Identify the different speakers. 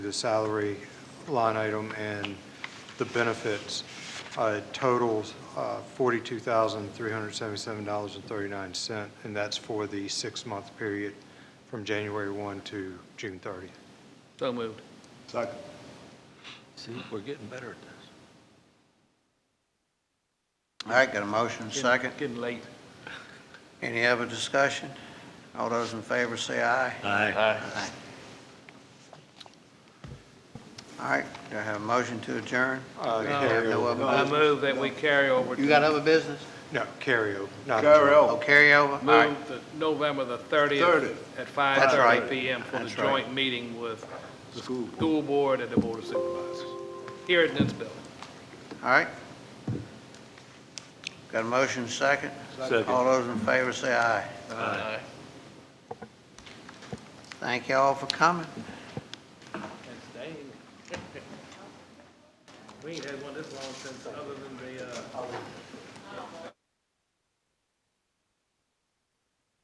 Speaker 1: the salary line item and the benefits uh, totals uh, $42,377.39, and that's for the six-month period from January 1 to June 30.
Speaker 2: So moved.
Speaker 3: Second.
Speaker 4: See, we're getting better at this.
Speaker 5: All right, got a motion, second.
Speaker 2: Getting late.
Speaker 5: Any other discussion? All those in favor say aye.
Speaker 4: Aye.
Speaker 5: All right, do I have a motion to adjourn?
Speaker 1: Uh,
Speaker 5: We have no other
Speaker 2: I
Speaker 5: business?
Speaker 2: move that we carry over
Speaker 5: You
Speaker 2: to,
Speaker 5: got other business?
Speaker 1: No, carryover, not
Speaker 3: Carry
Speaker 5: Oh,
Speaker 3: over.
Speaker 5: carryover? All right,
Speaker 2: move the November the
Speaker 3: 30th.
Speaker 2: 30th at
Speaker 5: That's right.
Speaker 2: 5:30 PM for the
Speaker 5: That's right.
Speaker 2: joint meeting with the
Speaker 3: School board.
Speaker 2: school board and the board of supervisors here at Nitzville.
Speaker 5: all right. Got a motion, second?
Speaker 4: Second.
Speaker 5: All those in favor say aye.
Speaker 2: Aye.
Speaker 5: Thank you all for coming.
Speaker 2: Thanks, Dave. We ain't had one this long since, other than the, uh,